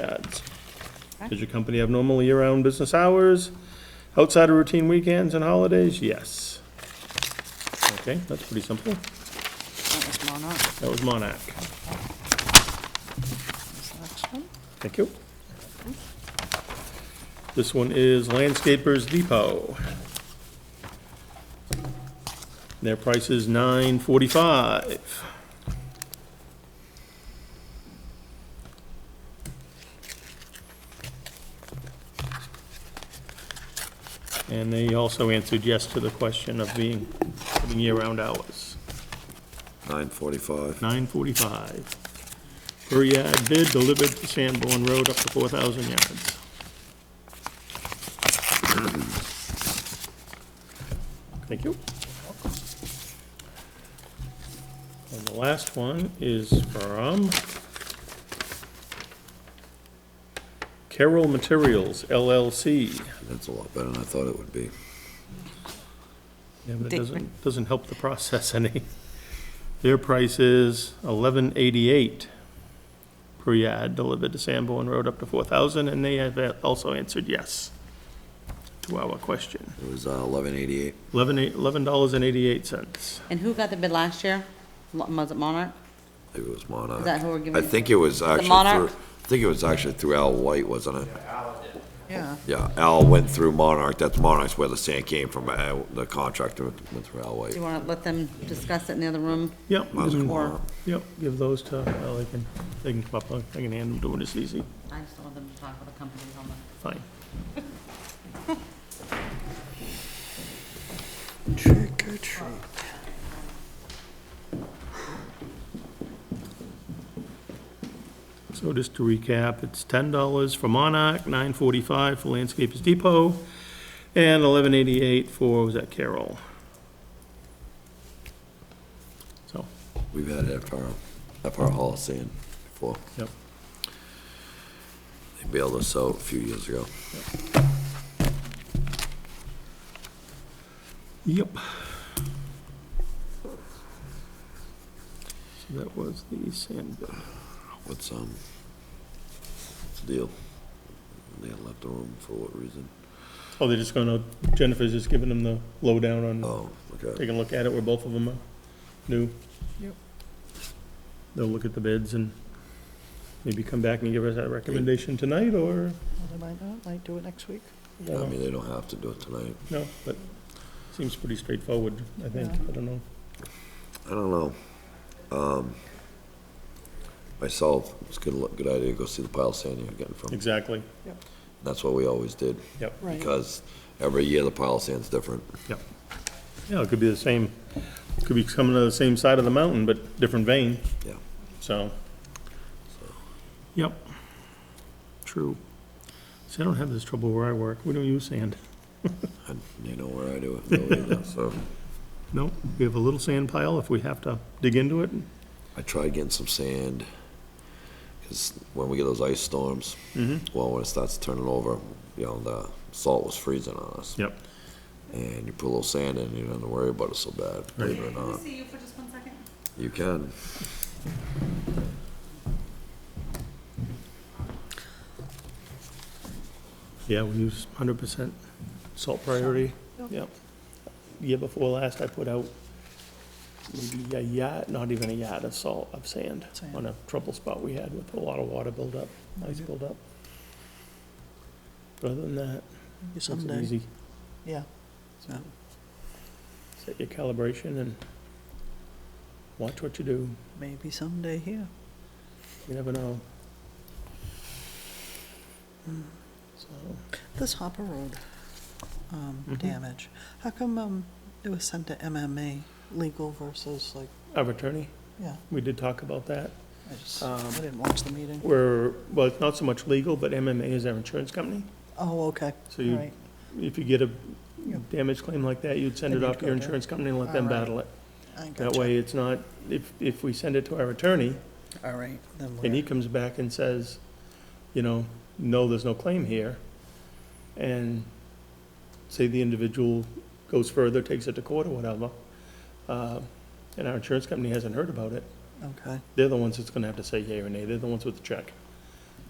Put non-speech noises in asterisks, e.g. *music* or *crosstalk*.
yards. Does your company have normal year-round business hours, outside of routine weekends and holidays? Yes. Okay, that's pretty simple. That was Monarch, That was Monarch. this next one. Thank you. This one is Landscapers Depot. Their price is nine forty-five. And they also answered yes to the question of being, having year-round hours. Nine forty-five. Nine forty-five. Per yard bid delivered to Sanborn Road up to four thousand yards. Thank you. And the last one is from Carroll Materials LLC. That's a lot better than I thought it would be. Yeah, but it They- doesn't, doesn't help the process *laughs* any. Their price is eleven eighty-eight per yard delivered to Sanborn Road up to four thousand, and they have also answered yes to our question. It was uh, eleven eighty-eight. Eleven eight, eleven dollars and eighty-eight cents. And who got the bid last year? Mo- Was it Monarch? Maybe it was Monarch. Is that who we're giving I it- think it was actually through, Monarch? I think it was actually through Al White, wasn't it? Yeah. Yeah, Al went through Monarch. That's Monarch's where the sand came from. uh, The contractor went went through Al White. Do you want to let them discuss it in the other room? Yep, Might as well mm, call her. yep, give those to, well, they can, they can pop, up, I can hand them to them, it's easy, I just want them to talk with the companies on the. fine. Trick or treat. So just to recap, it's ten dollars for Monarch, nine forty-five for Landscapers Depot, and eleven eighty-eight for, was that Carroll? So, We've had it at our, at our hall of sand before. yep, They bailed us out a few years ago. yep. So that was the sand bid. What's, um, what's the deal? They left the room for what reason? Oh, they're just gonna, Jennifer's just giving them the lowdown on, Oh, okay. taking a look at it where both of them are new. Yep. They'll look at the bids and maybe come back and give us that recommendation tonight, or? Well, they might not, might do it next week. I I don't know. mean, they don't have to do it tonight. No, but seems pretty straightforward, I think, I don't know. I don't know. Um, myself, it's a good, lo- good idea to go see the pile of sand you're getting from. Exactly, That's what we always did. yep. Right. Because every year the pile of sand's different. Yep. Yeah, it could be the same, could be coming to the same side of the mountain, but different vein, Yeah. so. Yep, true. See, I don't have this trouble where I work, we don't use sand. And they know where I do it. though, either, So No, we have a little sand pile if we have to dig into it. I tried getting some sand. Cause when we get those ice storms, well, when it starts turning over, you know, the salt was freezing on us. Yep. And you put a little sand in, you don't have to worry about it so bad, believe it or not. see you for just one second? You can. Yeah, we use hundred percent salt priority, yep. Year before last, I put out maybe a yard, not even a yard of salt, of sand, on a trouble spot we had with a lot of water buildup, ice buildup. But other than that, it's Someday, easy, yeah. So, set your calibration and watch what you do, maybe someday here. you never know. So. This Hopper Road um, Mm-hmm. damage, how come um, it was sent to MMA legal versus like, Our attorney, yeah, we did talk about that. Um, I just, Uh, I didn't watch the meeting. We're, well, it's not so much legal, but MMA is our insurance company. Oh, okay, So all you, right. if you get a Yep. damage claim like that, you'd send Then it you'd off to your go there. insurance company and let them Alright. battle it. I That gotcha. way, it's not, if, if we send it to our attorney, All right, then and he we're, comes back and says, you know, no, there's no claim here, and say the individual goes further, takes it to court or whatever, uh, and our insurance company hasn't heard about it, okay, they're the ones that's gonna have to say yea or nay, they're the ones with the check.